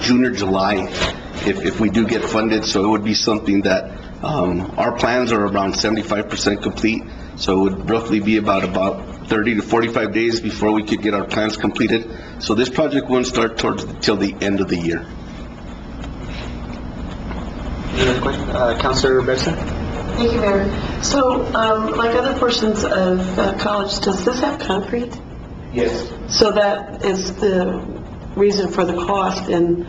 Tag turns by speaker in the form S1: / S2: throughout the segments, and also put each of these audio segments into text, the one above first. S1: June or July if, if we do get funded, so it would be something that, um, our plans are around seventy-five percent complete, so it would roughly be about, about thirty to forty-five days before we could get our plans completed. So this project wouldn't start towards, till the end of the year.
S2: Any other question? Uh, Counselor Benson?
S3: Thank you, Mayor. So, um, like other portions of uh, college, does this have concrete?
S1: Yes.
S3: So that is the reason for the cost and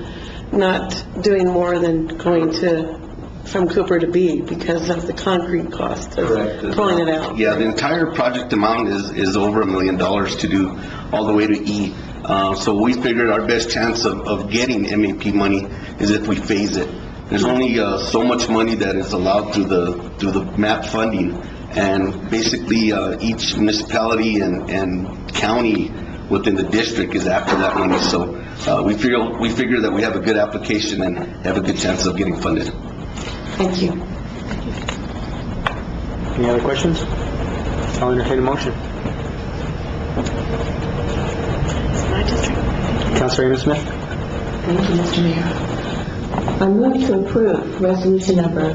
S3: not doing more than going to, from Cooper to B because of the concrete cost of
S2: Correct.
S3: pulling it out.
S1: Yeah, the entire project amount is, is over a million dollars to do, all the way to E. Uh, so we figured our best chance of, of getting MAP money is if we phase it. There's only, uh, so much money that is allowed through the, through the MAP funding. And basically, uh, each municipality and, and county within the district is after that money. So, uh, we feel, we figure that we have a good application and have a good chance of getting funded.
S3: Thank you.
S2: Any other questions? I'll entertain a motion. Counselor Amos Smith?
S4: Thank you, Mr. Mayor. I move to approve resolution number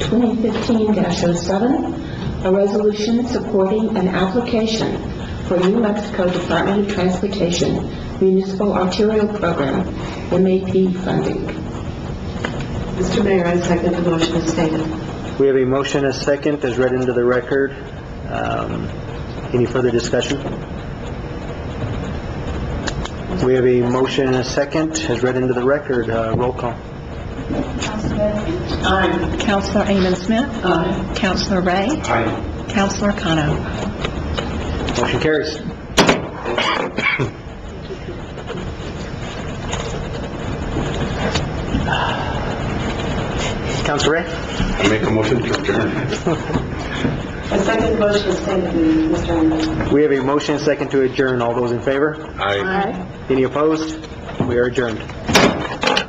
S4: 2015-07, a resolution supporting an application for New Mexico Department of Transportation Municipal Arterial Program, MAP funding.
S3: Mr. Mayor, I second the motion as stated.
S2: We have a motion, a second, as read into the record. Um, Any further discussion? We have a motion, and a second, as read into the record. Uh, Roll call.
S5: Counselor Amon Smith. Aye. Counselor Ray. Aye. Counselor Kano.
S2: Motion carries. Counselor Ray?
S1: I make a motion to adjourn.
S3: I second the motion as stated, Mr. Mayor.
S2: We have a motion, and a second, to adjourn. All those in favor?
S4: Aye.
S2: Any opposed? We are adjourned.